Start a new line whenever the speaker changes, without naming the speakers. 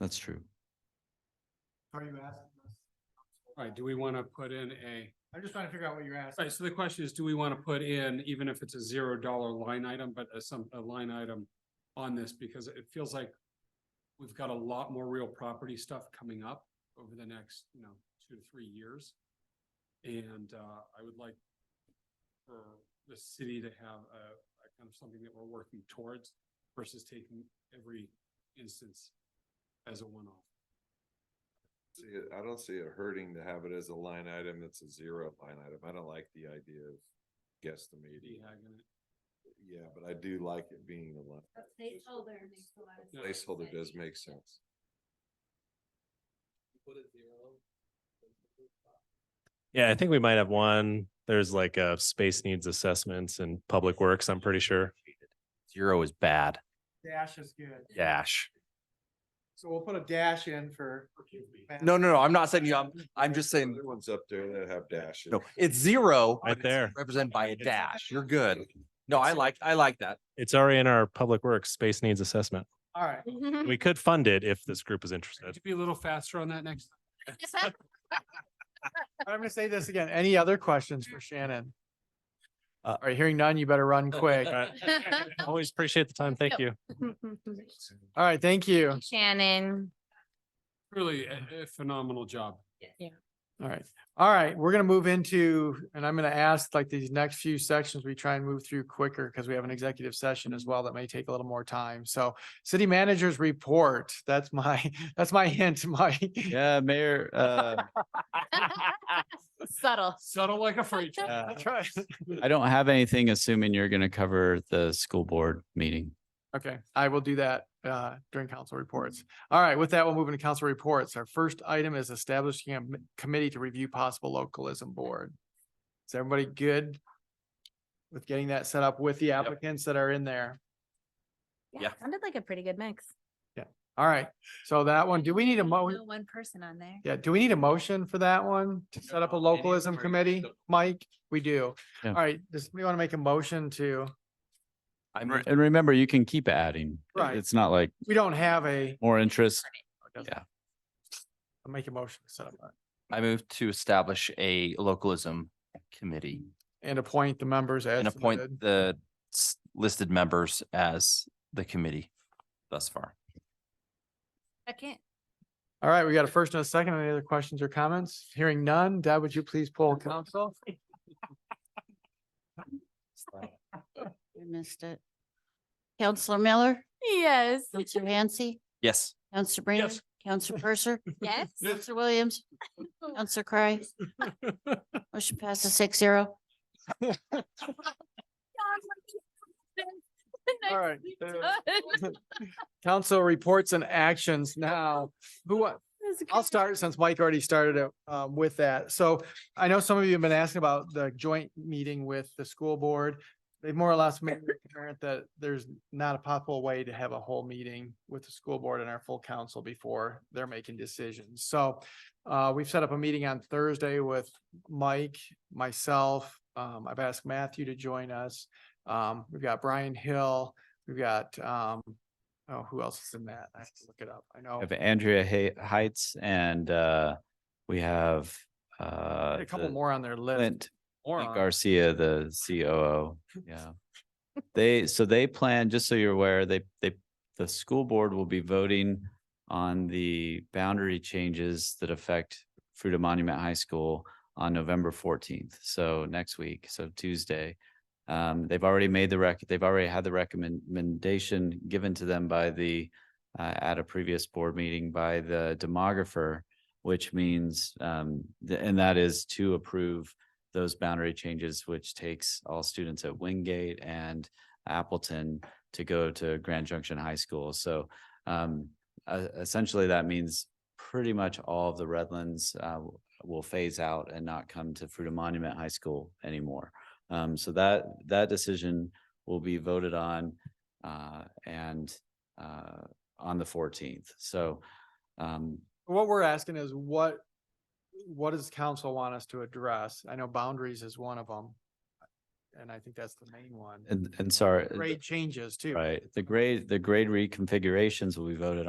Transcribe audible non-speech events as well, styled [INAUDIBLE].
That's true.
Are you asking us?
All right, do we want to put in a,
I'm just trying to figure out what you're
all
asking.
right, so the question is, do we want to put in, even if it's a zero dollar line item, but a some, a line item on this, because it feels like we've got a lot more real property stuff coming up over the next, you know, two to three years. And uh, I would like for the city to have a, a kind of something that we're working towards versus taking every instance as a one-off.
See, it- I don't see it hurting to have it as a line item. It's a zero line item. I don't like the idea of guesstimating. Yeah, but I do like it being a line.
Placeholder makes a lot of
Yeah.
sense.
Placeholder does make sense.
Yeah, I think we might have one. There's like a space needs assessments and public works, I'm pretty sure.
Zero is bad.
Dash is good.
Dash.
So we'll put a dash in for.
No, no, no, I'm not saying you, I'm, I'm just saying,
Other ones up there that have dashes.
no, it's zero.
Right
but it's
there.
Represented by a
It's-
dash. You're good. No, I like, I like that.
It's already in our public works space needs assessment.
All right.
We could fund it if this group is interested.
Could you be a little faster on that next?
I'm gonna say this again. Any other questions for Shannon?
Uh,
All right, hearing none, you better
[LAUGHS]
run quick.
All right. Always appreciate the time. Thank
Yep.
you.
[LAUGHS]
All right, thank you.
Shannon.
Really a a phenomenal job.
[LAUGHS]
All right. All right, we're gonna move into, and I'm gonna ask like these next few sections, we try and move through quicker because we have an executive session as well that may take a little more time. So city managers report, that's my, [LAUGHS] that's my hint, Mike.
Yeah, Mayor, uh,
[LAUGHS]
Subtle.
Settle like a freight train.
Uh,
[LAUGHS] That's right.
I don't have anything, assuming you're going to cover the school board meeting.
Okay, I will do that uh during council reports. All right, with that, we'll move into council reports. Our first item is establishing a m- committee to review possible localism board. Is everybody good with getting that set up with the applicants that are in there?
Yeah.
Sounded like a pretty good mix.
All right, so that one, do we need a mo?
No One person on there.
Yeah, do we need a motion for that one to set up a localism committee? Mike, we do.
Yeah.
All right, does we want to make a motion to,
I
And re-
moved-
and remember, you can keep adding. It-
Right.
It's not like
we don't have a,
more interest.
make a motion to set up a-
I moved to establish a localism committee
and appoint the members as
and
submitted.
appoint the s- listed members as the committee thus far.
Second.
All right, we got a first and a second. Any other questions or comments? Hearing none. Deb, would you please poll [LAUGHS] council?
I missed it. Counselor Miller,
Yes.
Counselor Hansi,
Yes.
Counselor Brandon,
Yes.
Counselor Purser,
[LAUGHS] Yes.
Counselor Williams, Counselor Cry. Motion passes six zero.
[LAUGHS] All
[LAUGHS]
right. Council reports and actions now. Who, wa- [LAUGHS] I'll start since Mike already started it, um, with that. So I know some of you have been asking about the joint meeting with the school board. They more or less made it apparent that there's not a possible way to have a whole meeting with the school board and our full council before they're making decisions. So uh, we've set up a meeting on Thursday with Mike, myself. Um, I've asked Matthew to join us. Um, we've got Brian Hill, we've got, um, oh, who else is in that? I have to look it up. I know.
We Have Andrea Hay- Heights and, uh, we have, uh,
A couple
the
more on their list.
Clint
Moron.
Garcia, the COO. Yeah. They, so they plan, just so you're aware, they, they, the school board will be voting on the boundary changes that affect Fruta Monument High School on November fourteenth. So next week, so Tuesday. Um, they've already made the rec, they've already had the recommendation given to them by the, uh, at a previous board meeting by the demographer, which means, um, th- and that is to approve those boundary changes, which takes all students at Wingate and Appleton to go to Grand Junction High School. So um, e- essentially, that means pretty much all of the Redlands uh, w- will phase out and not come to Fruta Monument High School anymore. Um, so that that decision will be voted on uh, and uh, on the 14th. So um,
What we're asking is what, what does council want us to address? I know boundaries is one of them. And I think that's the main one.
and uh, and sorry,
Grade changes too.
right? The grade the grade reconfigurations will be voted on.